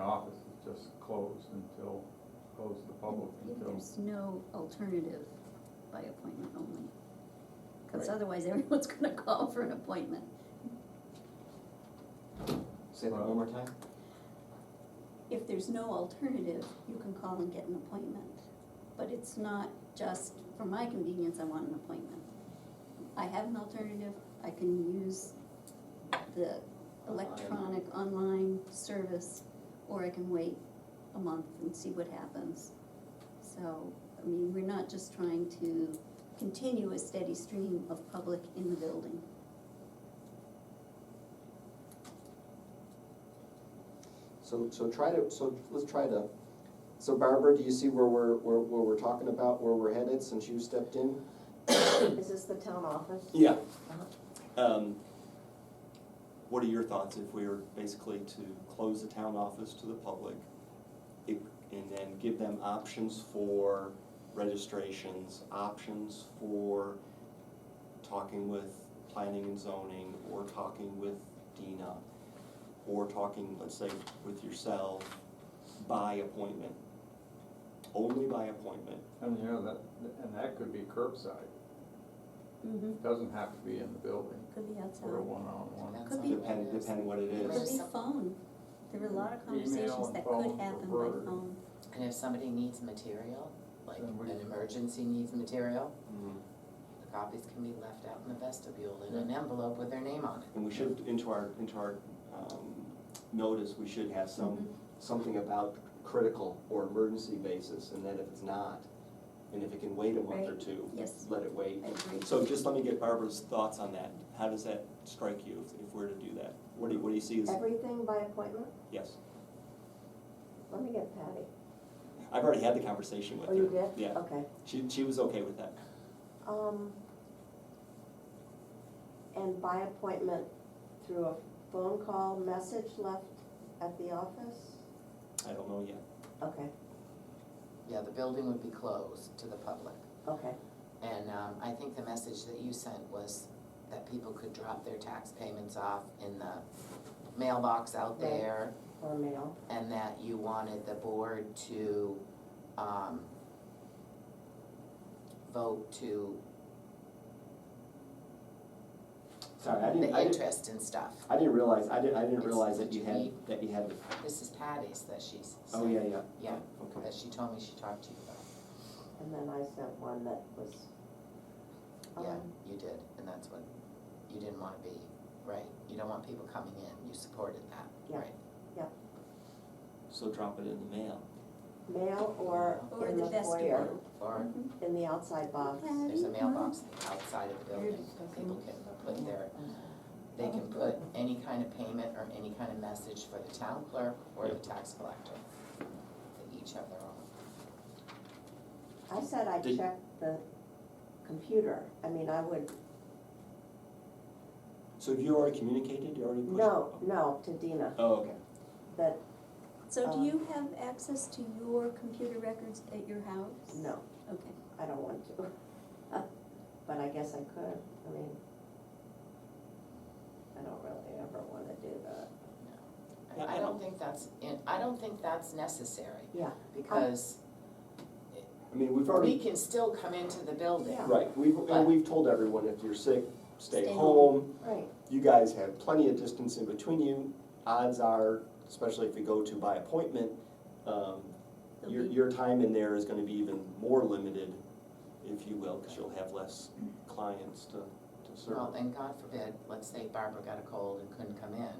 office is just closed until, closed to the public until, There's no alternative by appointment only. Cause Right. otherwise everyone's gonna call for an appointment. Say that one more time? If there's no alternative, you can call and get an appointment. But it's not just, for my convenience, I want an appointment. I have an alternative, I can use the electronic online service, or I can wait a month and see what happens. So, I mean, we're not just trying to continue a steady stream of public in the building. So, so try to, so let's try to, so Barbara, do you see where we're, where, where we're talking about, where we're headed since you stepped in? Is this the town office? Yeah. Uh-huh. Um, What are your thoughts if we were basically to close the town office to the public it- and then give them options for registrations, options for talking with planning and zoning, or talking with Dina, or talking, let's say, with yourself by appointment? Only by appointment, and you know, that, and that could be curbside. Mm-hmm. It doesn't have to be in the building Could be for a outside, one-on-one. could be, depend, depend what it could is. be phone. There were a lot of Email and conversations that phone could happen by preferred. phone. And if somebody needs material, like Then we- an emergency needs material, Mhm. the copies can be left out in the vestibule in an envelope with their name on it. And we should, into our, into our um, notice, we should have some, something about critical or emergency basis, and then if it's not, and if it can wait a month or Right. two, Yes, let it wait. I agree. So just let me get Barbara's thoughts on that. How does that strike you if- if we're to do that? What do you, what do you see as, Everything by appointment? yes? Let me get Patty. I've already had the conversation with Oh, her. you did? Yeah, Okay. she, she was okay with that. Um, and by appointment through a phone call, message left at the office? I don't know yet. Okay, Yeah, the building would be closed to the public. okay. And um, I think the message that you sent was that people could drop their tax payments off in the mailbox out Right. there Or mail. and that you wanted the board to um, vote to Sorry, I didn't, the I didn't, interest and stuff. I didn't realize, I didn't, I didn't It's- realize that did you you had, read? that you had, This is Patty's that she's oh, yeah, sent, yeah. Yeah. Okay. that she told me she talked to you about. And then I sent one that was, Oh. Yeah, um, you did, and that's what, you didn't wanna be, right, you don't want people coming in, you supported that, Yeah. right? So drop it in the mail. mail or Or in the the foyer, vestibule. Or Mhm. in the outside box. Okay. there's a mailbox outside of the building, Here's the people can put their, they can put Oh. any kind of payment or any kind of message for the town clerk or the tax collector. They each have their own. I said I Did- checked the computer. I mean, I would So have you already communicated, you already pushed? No, no, to Dina, Oh, okay. that, So Um, do you have access to your computer records at your house? no, Okay, I don't want to. But I guess I could, I mean, I don't really ever wanna do that. Yeah, I I I don't- don't think that's, in- I don't think that's necessary, Yeah, because I mean, we've we already, can still come into the building. Yeah. right, we've, and But- we've told everyone, if you're sick, stay Stay home. um, right, You guys have plenty of distance in between you. Odds are, especially if you go to by appointment, um, They'll your, be- your time in there is gonna be even more limited, if you will, because you'll have less clients to, to Well, serve. and God forbid, let's say Barbara got a cold and couldn't come in.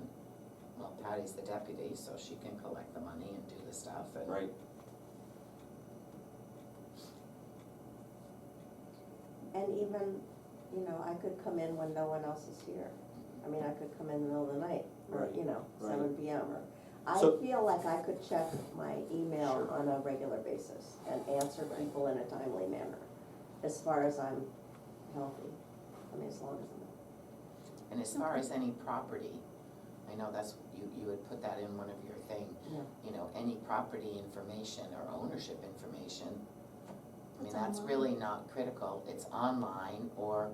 Well, Patty's the deputy, so she can collect the money and do the stuff and. Right, and even, you know, I could come in when no one else is here. I mean, I could come in the middle of the night, or, Right, you know, right. seven P M or. I So- feel like I could check my email Sure. on a regular basis and answer people in a timely manner, as far as I'm healthy, I mean, as long as I'm healthy. And as far as any property, I know that's, you, you would put that in one of your thing. Yeah. You know, any property information or ownership information, I mean, It's that's online. really not critical. It's online or,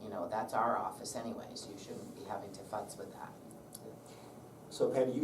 you know, that's our office anyways, you shouldn't be having to futz with that. so Patty, you